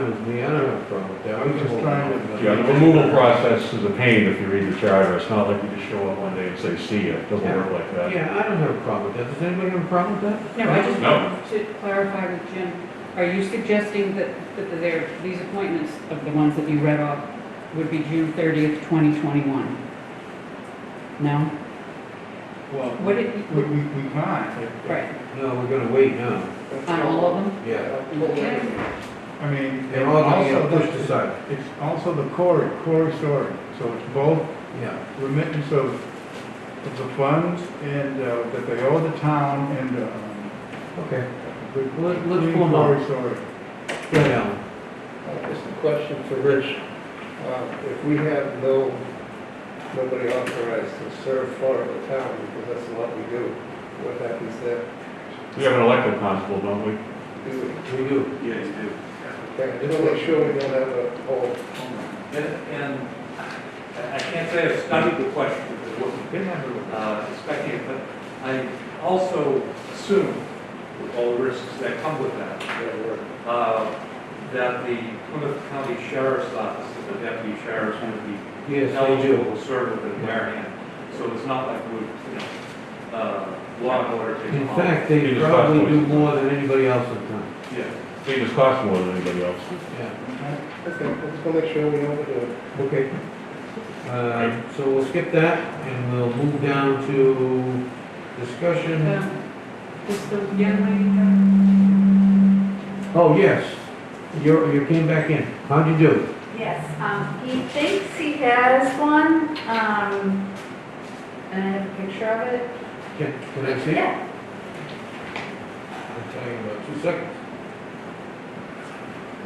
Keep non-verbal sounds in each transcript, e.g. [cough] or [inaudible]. Me, I don't have a problem with that. I'm Just just trying trying to. Yeah, the removal process is a pain if you read the charter, it's not like you just show up one day and say, see ya, it doesn't work like that. Yeah, I don't have a problem with that. Does anybody have a problem with that? No, I just No. wanted to clarify with Jim, are you suggesting that, that there, these appointments of the ones that you read off would be June thirtieth, twenty twenty-one? No? Well, Would it- We, we, we can't. if- if- Right, No, we're gonna wait now. on all of them? Yeah. Okay. I mean, They're and all gonna also, get pushed the- aside. it's also the core, core story, so it's both Yeah. remittance of, of the funds and, uh, that they owe the town and, um, Okay. the Let- let's clean pull them up. core story. Go down. Uh, Just a question for Rich. Uh, If we have no, nobody authorized to serve for the town, because that's what we do, what happens there? We have an elected constable, don't we? Do we? We do. Yeah, you do. Okay, just to make sure we don't have a whole, And, and I I can't say I've studied the question, because I wasn't, They never would. uh, expecting it, but I also assume, with all the risks that come with that, that work. uh, that the Plymouth County Sheriff's Office, and the deputy sheriffs would be Yes, we eligible do. to serve with the mayor hand. So it's not like we, you know, uh, law and order In takes all. fact, they Here's probably five do points. more than anybody else in town. Yeah, They just cost more than anybody else. Yeah. Okay, just to make sure we know what we're doing. Okay. Uh, so we'll skip that and we'll move down to discussion. Um, Does the young lady um, have? Oh, yes. You're, you came back in. How'd you do? Yes, um, he thinks he has one, um, and I have a picture of it. Can, can I see it? Yeah, I'll tell you in about two seconds.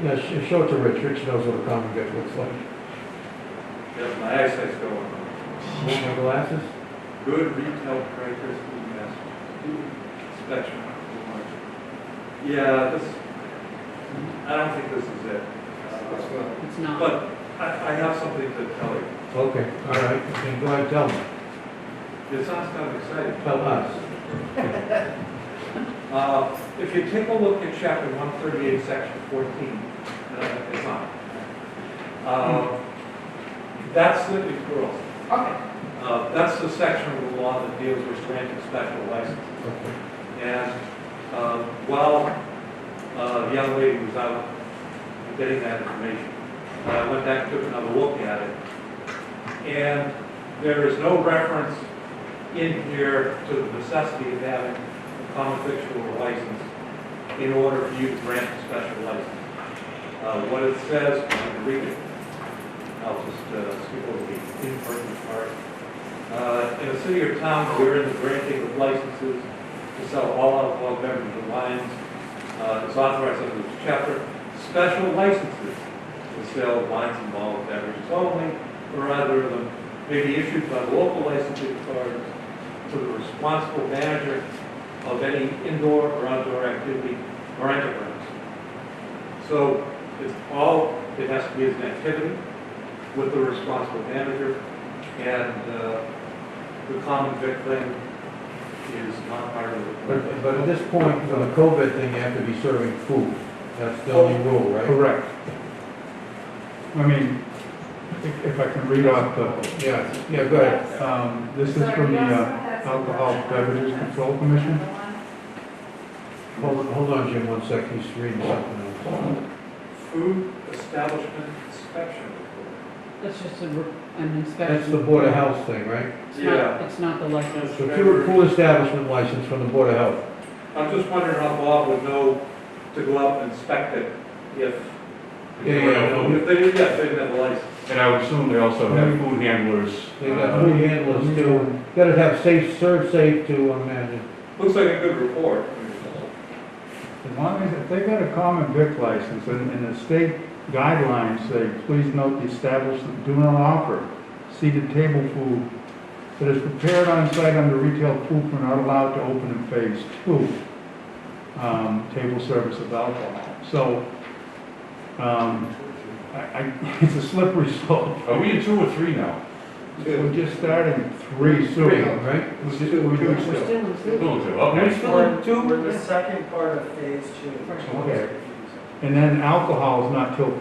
Yeah, sh- show it to Rich, Rich knows what a common good looks like. yeah, my eyesight's going on. Want my glasses? Good retail prices, food mass, inspection. Yeah, this, I don't think this is it. That's Uh, not- It's not. But I, I have something to tell you. Okay, all right, then go ahead, tell me, It sounds kind of exciting. tell us. Uh, If you take a look at chapter 138, section 14, uh, it's on. Uh, That's the, girls, Okay. uh, that's the section of the law that deals with granting special licenses. Okay. And uh, while uh, the young lady was out getting that information, I went back, took another look at it. And there is no reference in here to the necessity of having a common victual license in order for you to grant a special license. Uh, What it says, I'm going to read it. I'll just uh, skip over the important part. Uh, In a city or town, wherein the granting of licenses to sell all alcohol beverages or wines uh, is authorized under this chapter. Special licenses to sell wines and malt beverages only, or either of them, may be issued by the local licensing authorities to the responsible manager of any indoor or outdoor activity or enterprise. So it's all, it has to be as an activity with the responsible manager, and uh, the common vic thing is not part of the. But, but at this point, for the COVID thing, you have to be serving food, that's the only rule, right? Correct. I mean, if, if I can read off the, Yeah, yeah, go ahead. um, this is Sorry, from the, yes, I uh, have some Alcohol of that. Beverages Control Commission. Another one. Hold, hold on, Jim, one sec, he's reading something else. Food establishment inspection report. That's just a, re- an inspection. That's the Board of Health thing, right? It's not, it's not the license. So pure pool establishment license from the Board of Health. I'm just wondering how Bob would know to go out and inspect it if, Yeah, yeah, no. if they didn't, yeah, if they didn't have a license. And I would assume they also have food handlers. Hmm. They got uh, food handlers too, gotta have safe, serve safe too, I imagine. Looks like a good report. As long as, if they got a common vic license, and, and the state guidelines say, please note the establishment do not offer seated table food that is prepared on site under retail food are not allowed to open in phase two, um, table service of alcohol. So, um, I, [laughs] I, it's a slippery slope. Are we in two or three now? We're just starting three Three, soon. right? We're just- we're We're just- still in Two, Zoom. okay. We're still in two? We're the second part of phase two. Okay. And then alcohol is not till